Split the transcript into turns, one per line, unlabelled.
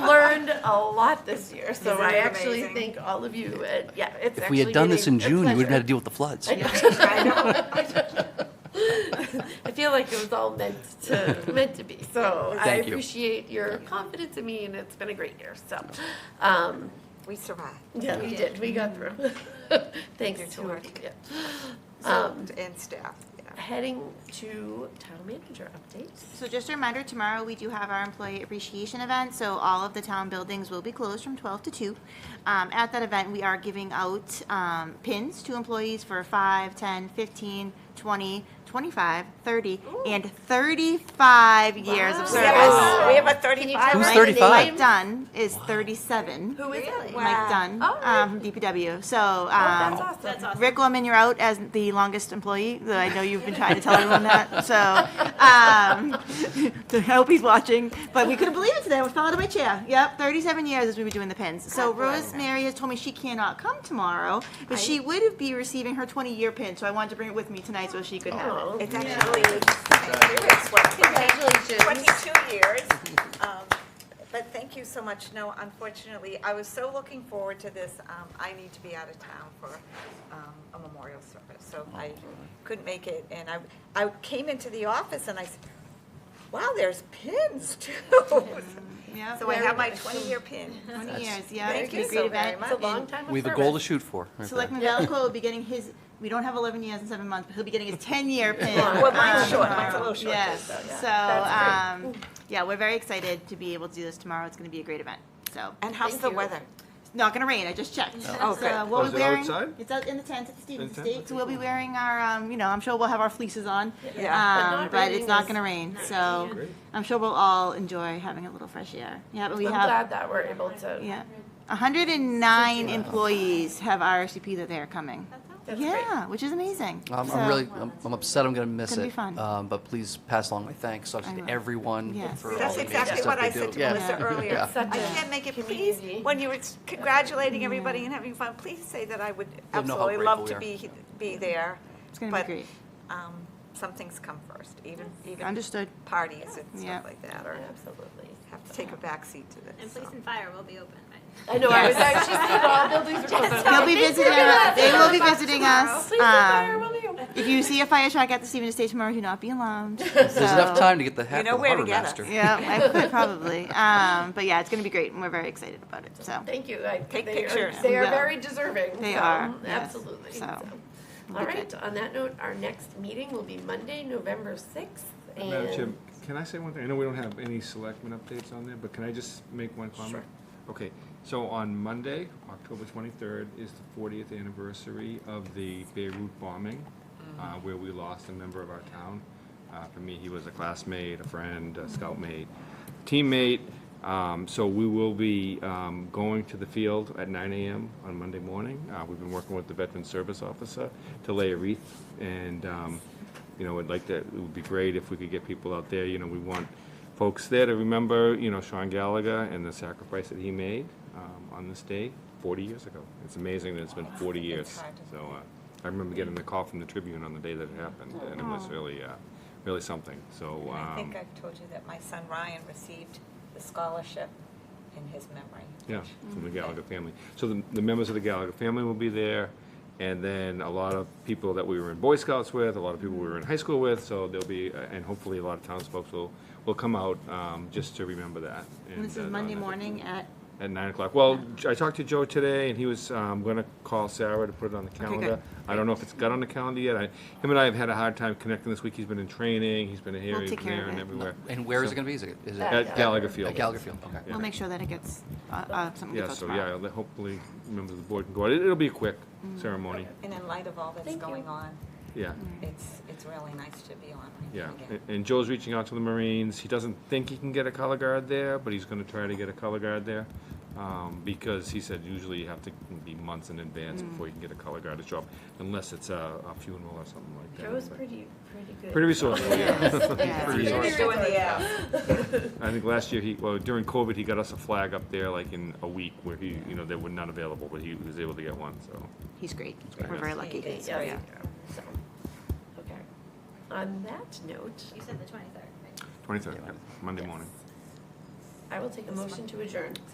a lot this year, so
Isn't
I
it
actually
amazing?
thank all of you. And yeah, it's
If we had
actually
done this
been
in
a- a
June, you wouldn't have had to
pleasure.
deal with the floods.
I know.
I feel like it was all meant to meant to be. So I
Thank you.
appreciate your confidence in me, and it's been a great year. So, um,
We survived.
yeah, we did. We got through. Thanks
You're too
to our
lucky.
yeah.
So-
Um,
And staff, yeah.
Heading to town manager updates.
So just a reminder, tomorrow we do have our employee appreciation event, so all of the town buildings will be closed from 12 to 2. Um, At that event, we are giving out um, pins to employees for 5, 10, 15, 20, 25, 30, and 35 years of service.
Yes, we have a
Can you
35.
tell
Who's
us
35?
the
Mike
name?
Dunn is 37.
Who is it?
Mike Dunn
Oh,
um, from DPW. So
That's
um,
awesome. That's awesome.
Rick Woman, you're out as the longest employee. though I know you've been trying to tell everyone that. So um, I hope he's watching. But we couldn't believe it today. I fell out of my chair. Yep, 37 years as we were doing the pins. So Rosemary has told me she cannot come tomorrow, but she would be receiving her 20-year pin. So I wanted to bring it with me tonight so she could have it.
Oh,
It's actually, it's what,
Congratulations.
22 years. Um, But thank you so much. No, unfortunately, I was so looking forward to this. Um, I need to be out of town for um, a memorial service, so I couldn't make it. And I, I came into the office and I said, wow, there's pins too.
Yeah,
So I have my 20-year pin.
20 years, yeah.
Thank
it's been
you so very
a great event.
much.
It's a long time. of
We have a goal to
service.
shoot for. right
Selectman
there.
Valico will be getting his, we don't have 11 years and seven months, but he'll be getting his 10-year pin.
Well, mine's
um,
short. Mine's a
tomorrow.
little short,
Yes,
so, yeah.
so, um, yeah, we're very excited to be able to do this tomorrow. It's going to be a great event, so.
And how's
Thank
the
you.
weather?
It's not going to rain, I just checked.
Oh, good.
So we'll
Is
be
it
wearing-
outside?
It's out in the tent at the Stevens
In the tent?
Estate, so we'll be wearing our, um, you know, I'm sure we'll have our fleeces on.
Yeah.
But
um,
not
But
raining
it's not
is
going to rain, so
Great.
I'm sure we'll all enjoy having a little fresh air. Yeah, but we
I'm
have.
glad that we're able to.
Yeah. 109 employees have RSVP that they are coming.
That's great.
Yeah, which is amazing.
I'm,
So-
I'm really, I'm, I'm upset I'm going to miss
It's gonna
it.
be fun.
Um, but please pass along my thanks
I
obviously
will.
to everyone
Yes.
for all
That's
the amazing
exactly
stuff
what
they
I
do.
said to
Yeah.
Melissa earlier.
Yeah.
I
Such a
can't make it, please,
community.
when you were congratulating everybody and having fun, please say that I would
You'll know how
absolutely love to
grateful we
be, be there.
It's gonna be
But,
great.
um, Some things come first, even, even
Understood.
parties and
Yeah.
stuff like that, or
Absolutely.
have to take a backseat to
And
this.
police
so.
and fire will be open, right?
I know, I was actually saying all buildings are closed.
They'll be visiting, they will be visiting us.
Please, fire,
Um,
will you?
If you see a fire truck at the Stevens Estate tomorrow, do not be alarmed.
There's enough time to get the heck
know
of the
where to
harbor
get
master.
us.
Yeah, I could probably. Um, But yeah, it's going to be great, and we're very excited about it, so.
Thank you. I-
Take
they are-
pictures.
They are
Yeah.
very deserving.
They
so,
are, yes.
Absolutely.
So,
so.
we'll
All
be
right,
good.
on that note, our next meeting will be Monday, November 6th.
Madam Chair,
and
can I say one thing? I know we don't have any selectmen updates on there, but can I just make one comment? Okay, so on Monday, October twenty-third, is the fortieth anniversary of the Beirut bombing, uh, where we lost a member of our town. Uh, for me, he was a classmate, a friend, a scout mate, teammate. Um, so we will be, um, going to the field at nine AM on Monday morning. Uh, we've been working with the Veteran Service Officer to lay a wreath and, um, you know, I'd like to, it would be great if we could get people out there, you know, we want folks there to remember, you know, Sean Gallagher and the sacrifice that he made um, on this day 40 years ago. It's amazing that it's been 40 years. So uh, I remember getting the call from the Tribune on the day that it happened, and it was really, uh, really something, so.
Oh. And I think
um,
I've told you that my son Ryan received the scholarship in his memory.
Yeah, from the Gallagher family. So the, the members of the Gallagher family will be there, and then a lot of people that we were in Boy Scouts with, a lot of people we were in high school with, so there'll be, uh, and hopefully a lot of townsfolk will, will come out, um, just to remember that.
And This
uh,
is
on
Monday
that-
morning at,
At nine o'clock. Well, J- I talked to Joe today, and he was, um, gonna call Sarah to put it on the calendar. I don't know if it's got on the calendar yet. I, him and I have had a hard time connecting this week. He's been in training, he's been here,
We'll
he's
take
been
care
there
of
and
it.
everywhere.
And where is it
So-
going to be? Is it, is it
At
At Gallagher Field.
at Gallagher Field? Okay.
we'll make sure that it gets, uh, uh, something
Yeah,
gets out
so,
tomorrow.
yeah, I'll- hopefully, members of the board can go out. It- It'll be a quick ceremony,
And in light of all that's
Thank you.
going on,
yeah,
it's, it's really nice to be on
yeah.
again.
A- And Joe's reaching out to the Marines. He doesn't think he can get a color guard there, but he's gonna try to get a color guard there. Um, because he said usually you have to be months in advance before you can get a color guard job, unless it's a, a funeral or something like that.
Joe's
but-
pretty, pretty good.
Pretty resourceful, yeah.
Yeah.
Pretty
Doing
resourceful.
the, uh,
I think last year he, well, during COVID, he got us a flag up there like in a week where he, you know, they were not available, but he was able to get one, so.
He's great.
great.
We're very
Yeah.
lucky.
It's
So,
great.
yeah.
So, Okay. On that note,
You said the 23rd, right?
Twenty-third, Monday morning.
I will take a motion to adjourn.